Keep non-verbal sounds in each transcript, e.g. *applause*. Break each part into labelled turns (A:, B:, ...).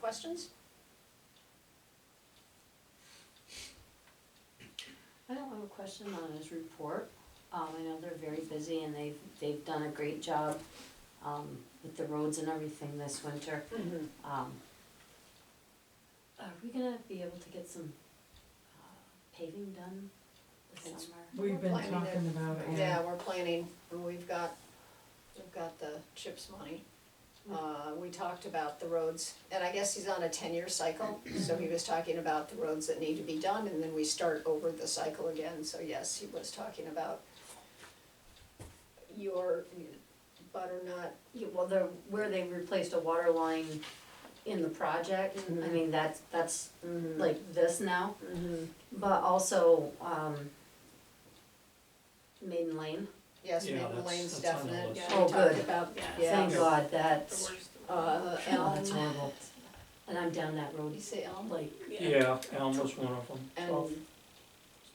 A: questions?
B: I don't have a question on his report. Um, I know they're very busy and they've, they've done a great job, um, with the roads and everything this winter. Um, are we gonna be able to get some, uh, paving done this
A: It's-
B: summer?
C: We've been
A: Well, I mean,
C: talking about it, yeah.
A: Yeah, we're planning, and we've got, we've got the CHIPS money. Uh, we talked about the roads, and I guess he's on a ten-year cycle, so he was talking about the roads that need to be done, and then we start over the cycle again, so yes, he was talking about your butternut,
B: Yeah, well, the, where they replaced a water line in the project, I mean, that's, that's like this now. But also, um, Maiden Lane,
A: yes,
D: Yeah,
A: Maiden
D: that's-
A: Lane's
D: that's on the
A: definite,
D: list.
A: yeah,
B: Oh,
A: we talked
B: good.
A: about,
B: thank
A: Yeah.
B: God, that's,
A: uh,
B: oh, *laughs* that's
A: Elm,
B: horrible. And I'm down that road,
A: you say Elm,
B: like,
D: Yeah, Elm was one of them.
B: Twelve.
A: and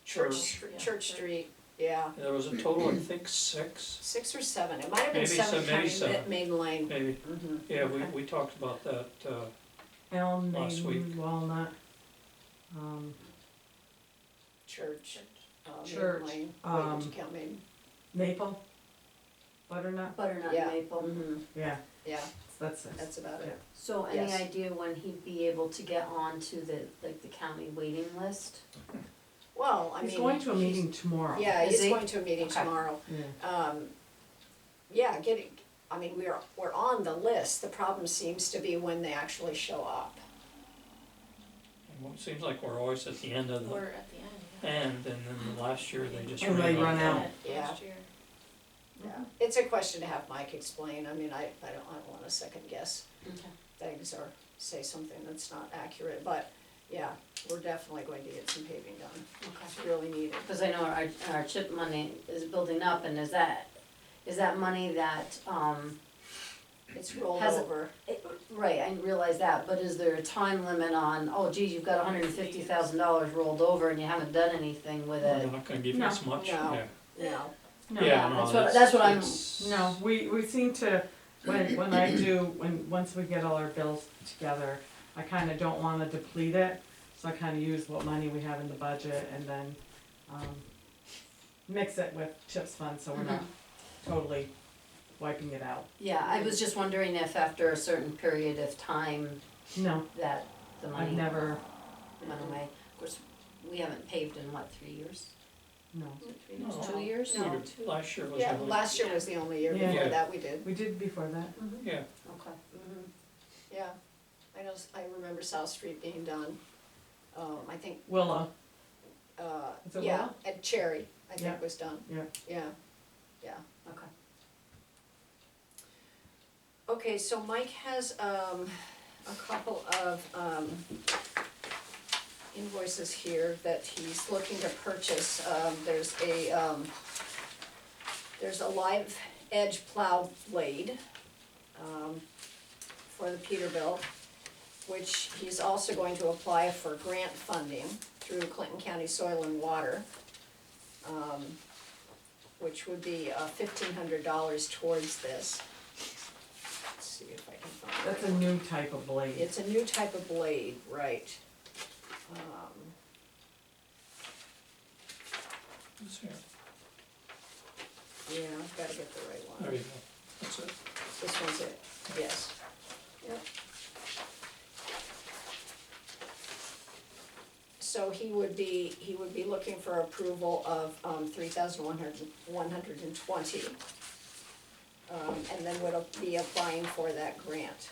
A: Church,
D: Church.
A: Str- Church Street, yeah.
D: There was a total, I think, six,
A: Six or seven, it might have been
D: Maybe
A: seven
D: some- maybe
A: counting Ma-
D: seven.
A: Main Lane.
D: maybe.
C: Mm-hmm.
A: Mhm.
D: Yeah, we,
C: Okay.
D: we talked about that, uh,
C: Elm,
D: Last
C: Maiden,
D: week.
C: Walnut, um,
A: Church, uh, Main
C: Church,
A: Lane, wait, did
C: um,
A: you count Main?
C: Maple, Butternut,
B: butternut
A: Yeah.
B: maple.
A: Mhm.
C: yeah,
A: Yeah,
C: that's it.
A: that's about it.
B: So any
A: Yes.
B: idea when he'd be able to get on to the, like, the county waiting list?
A: Well, I mean.
C: He's going to a
A: he's-
C: meeting tomorrow.
A: Yeah,
B: Is
A: he's
B: he?
A: going to a meeting
B: Okay.
A: tomorrow.
C: Yeah.
A: Um, yeah, getting, I mean, we're, we're on the list, the problem seems to be when they actually show up.
D: it seems like we're always at the end of the
E: We're at the end,
D: end, and then the last year they just
C: And
D: ran
C: they
D: out.
C: run
E: yeah.
C: out.
A: Yeah.
E: Last year.
C: Mm-hmm.
A: Yeah, it's a question to have Mike explain, I mean, I, I don't, I don't wanna second guess
B: Okay.
A: things or say something that's not accurate, but yeah, we're definitely going to get some paving done,
B: Okay.
A: it's really needed.
B: Cause I know our, our chip money is building up and is that, is that money that, um,
A: It's rolled
B: Has it-
A: over.
B: it- right, I realize that, but is there a time limit on, oh geez, you've got hundred and fifty thousand dollars rolled over and you haven't done anything with
D: We're
B: it?
D: not gonna give
C: No.
D: us much,
A: No.
D: yeah.
A: No.
C: No.
D: Yeah,
B: Yeah,
D: no,
B: that's what- that's what I'm-
D: it's-
C: No, we, we seem to, when, when I do, when, once we get all our bills together, I kinda don't wanna deplete it, so I kinda use what money we have in the budget and then, um, mix it with CHIPS fund, so we're not
A: Mm-hmm.
C: totally wiping it out.
B: Yeah, I was just wondering if after a certain period of time
C: No,
B: that the
C: I've
B: money went
C: never,
B: away. Of course, we haven't paved in what, three years?
C: no,
A: Oh,
D: No.
B: Two years?
D: We
A: No.
D: did- Last year was
A: Yeah,
D: only,
A: last year was the only year
C: Yeah.
A: before that we did.
C: we did before that,
B: Mm-hmm.
D: yeah,
B: Okay.
A: Mhm. Yeah, I know, s- I remember South Street being done, um, I think,
C: Willow,
A: uh,
C: Is it
A: yeah,
C: Willow?
A: at Cherry, I
C: Yeah.
A: think was done.
C: Yeah.
A: Yeah, yeah.
B: Okay.
A: Okay, so Mike has, um, a couple of, um, invoices here that he's looking to purchase, um, there's a, um, there's a live edge plow blade, um, for the Peterbilt, which he's also going to apply for grant funding through Clinton County Soil and Water, um, which would be, uh, fifteen hundred dollars towards this. Let's see if I can find it.
C: that's a new type of blade.
A: It's a new type of blade, right. Um,
D: it's here,
A: yeah, I've gotta get the right one.
D: there you go, that's it.
A: This one's it, yes. Yep. So he would be, he would be looking for approval of, um, three thousand one hundred, one hundred and twenty. Um, and then would be applying for that grant.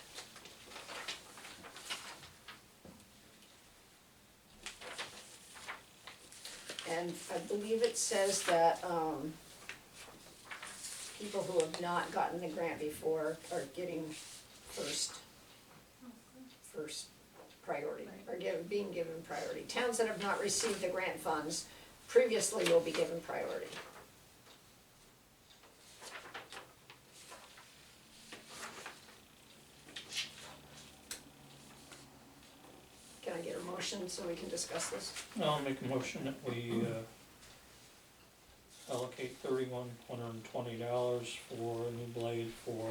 A: And I believe it says that, um, people who have not gotten the grant before are getting first, first priority, are given, being given priority. Towns that have not received the grant funds previously will be given priority. Can I get a motion so we can discuss this?
D: I'll make a motion that we uh, allocate thirty-one, one hundred and twenty dollars for a new blade for